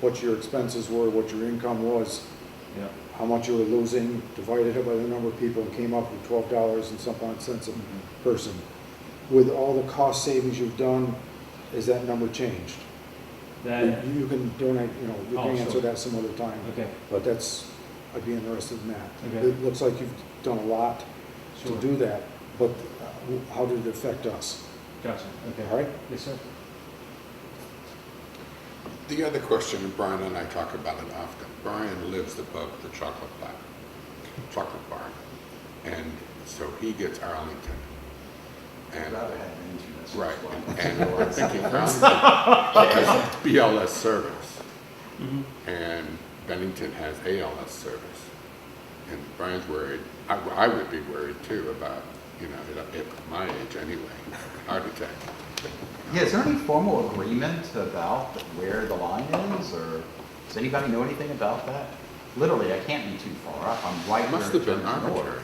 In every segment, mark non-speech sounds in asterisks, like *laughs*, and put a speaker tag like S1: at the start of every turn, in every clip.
S1: what your expenses were, what your income was,
S2: yeah.
S1: how much you were losing, divided it by the number of people, and came up with twelve dollars and some odd cents a person. With all the cost savings you've done, is that number changed?
S2: That,
S1: You you can donate, you know, you
S2: Uh, Oh,
S1: can answer
S2: sure.
S1: that some other time.
S2: okay,
S1: But that's, I'd be interested in that.
S2: Okay.
S1: It looks like you've done a lot to
S2: Sure.
S1: do that, but uh, how did it affect us?
S2: gotcha, okay.
S1: All right?
S2: Yes, sir.
S3: The other question, and Brian and I talk about it often, Brian lives above the chocolate bar, chocolate bar, and so he gets Arlington. And,
S4: rather have insurance.
S3: right, and-
S4: *laughs*
S3: and I *laughs* think he found it has BLS service, and Bennington has ALS service. And Brian's worried, I, I would be worried too about, you know, at- at my age anyway, heart attack.
S4: Yeah, is there any formal agreement about where the line is, or does anybody know anything about that? Literally, I can't be too far up, I'm right
S3: It
S4: where
S3: must have
S4: it
S3: been
S4: turns north.
S3: arbitrary.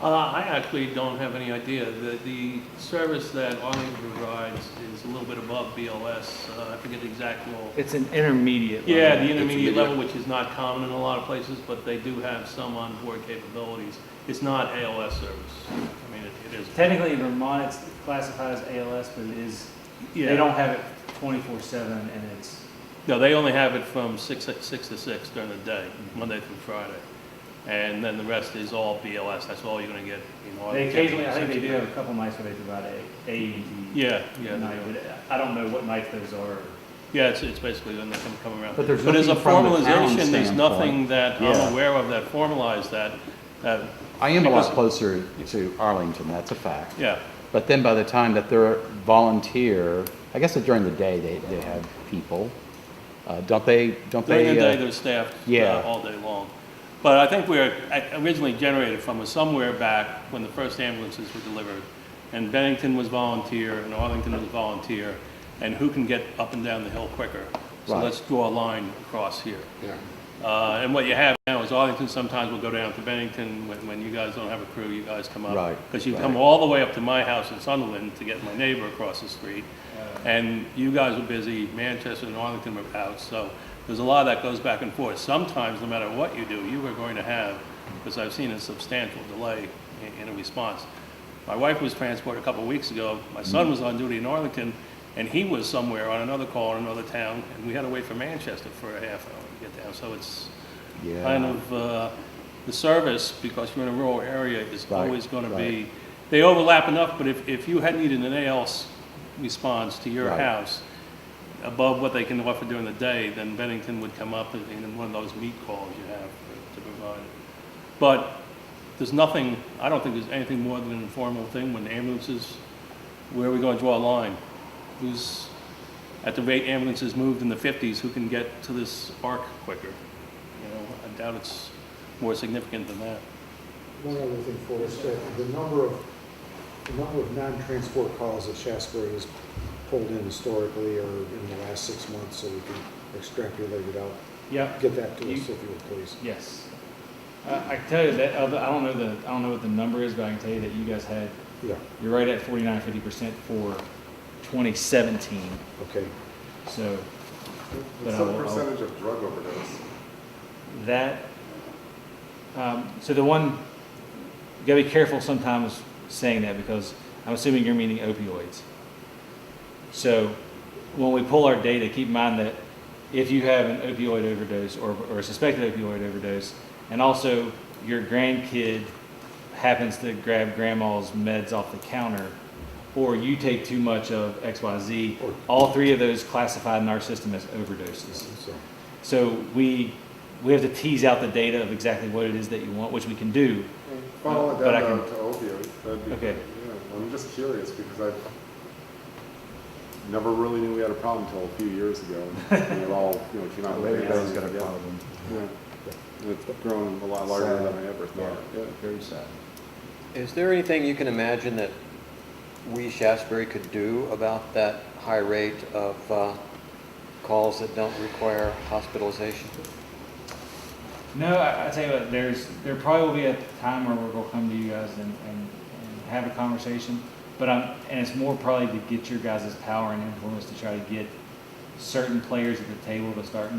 S5: Uh, I actually don't have any idea. The, the service that Arlington provides is a little bit above BLS. Uh, I forget the exact role.
S6: It's an intermediate. level.
S5: Yeah, the
S3: intermediate.
S5: intermediate level, which is not common in a lot of places, but they do have some onboard capabilities. It's not ALS service. I mean, it, it is.
S6: Technically, in Vermont, it's classified as ALS, but it is,
S5: Yeah.
S6: they don't have it twenty-four seven and it's,
S5: No, they only have it from six, six to six during the day, Monday through Friday. And then the rest is all BLS. That's all you're gonna get in Arlington.
S6: they occasionally, I think they do have a couple nights where they provide a, AED
S5: Yeah, yeah. they
S6: night,
S5: do.
S6: but I don't know what nights those are.
S5: Yeah, it's, it's basically when they come, come around.
S4: But there's
S5: as a
S4: nothing from the town
S5: formalization, there's nothing
S4: standpoint.
S5: that
S4: Yeah.
S5: I'm aware of that formalized that, that,
S4: I am a lot
S5: Because-
S4: closer to Arlington, that's a fact.
S5: yeah.
S4: But then by the time that they're volunteer, I guess during the day, they, they have people. Uh, don't they, don't they?
S5: During the day,
S4: uh,
S5: they're staffed uh,
S4: yeah.
S5: all day long. But I think we're uh, originally generated from was somewhere back when the first ambulances were delivered. And Bennington was volunteer and Arlington was volunteer. And who can get up and down the hill quicker? So
S4: Right.
S5: let's draw a line across here.
S3: Yeah.
S5: Uh, and what you have now is Arlington sometimes will go down to Bennington, when, when you guys don't have a crew, you guys come up.
S4: Right,
S5: Because you come
S4: right.
S5: all the way up to my house in Sunderland to get my neighbor across the street. And you guys were busy, Manchester and Arlington were out, so there's a lot that goes back and forth. Sometimes, no matter what you do, you are going to have, because I've seen a substantial delay in, in a response. My wife was transported a couple of weeks ago, my
S4: Mm.
S5: son was on duty in Arlington, and he was somewhere on another call in another town, and we had to wait for Manchester for a half hour to get down, so it's
S4: Yeah.
S5: kind of, uh, the service, because you're in a rural area, is
S4: Right,
S5: always gonna
S4: right.
S5: be, they overlap enough, but if, if you had needed an ALS response to your
S4: Right.
S5: house, above what they can offer during the day, then Bennington would come up in in one of those meet calls you have for- to provide. But there's nothing, I don't think there's anything more than an informal thing when ambulances, where are we gonna draw a line? Who's, at the rate ambulances moved in the fifties, who can get to this arc quicker? You know, I doubt it's more significant than that.
S1: One other thing for us, that the number of, the number of non-transport calls that Shasberry has pulled in historically or in the last six months, so we can extrapolate it out.
S6: Yep.
S1: Get that to us
S6: You-
S1: if you would please.
S6: Yes. I, I can tell you that, other- I don't know the, I don't know what the number is, but I can tell you that you guys had,
S1: Yeah,
S6: you're right at forty-nine, fifty percent for twenty seventeen,
S1: okay.
S6: so But
S7: What's
S6: I
S7: the
S6: will- I'll-
S7: percentage of drug overdose?
S6: that, um, so the one, you gotta be careful sometimes saying that because I'm assuming you're meaning opioids. So when we pull our data, keep in mind that if you have an opioid overdose or, or a suspected opioid overdose, and also your grandkid happens to grab grandma's meds off the counter, or you take too much of XYZ,
S1: Or-
S6: all three of those classified in our system as overdoses.
S1: So,
S6: So we, we have to tease out the data of exactly what it is that you want, which we can do.
S7: Follow it
S6: But I
S7: down
S6: can-
S7: to to opioids, that'd be,
S6: Okay.
S7: yeah, I'm just curious because I never really knew we had a problem until a few years ago.
S6: *laughs*
S7: and It all, you know, came out. with
S4: Everybody's got a
S7: answers,
S4: problem.
S7: yeah. Yeah. It's grown a lot larger
S4: Sad.
S7: than I ever thought, yeah.
S4: Very sad.
S8: Is there anything you can imagine that we, Shasberry, could do about that high rate of uh, calls that don't require hospitalization?
S6: No, I, I tell you what, there's, there probably will be a time where we're gonna come to you guys and, and, and have a conversation. But I'm, and it's more probably to get your guys' power and influence to try to get certain players at the table to start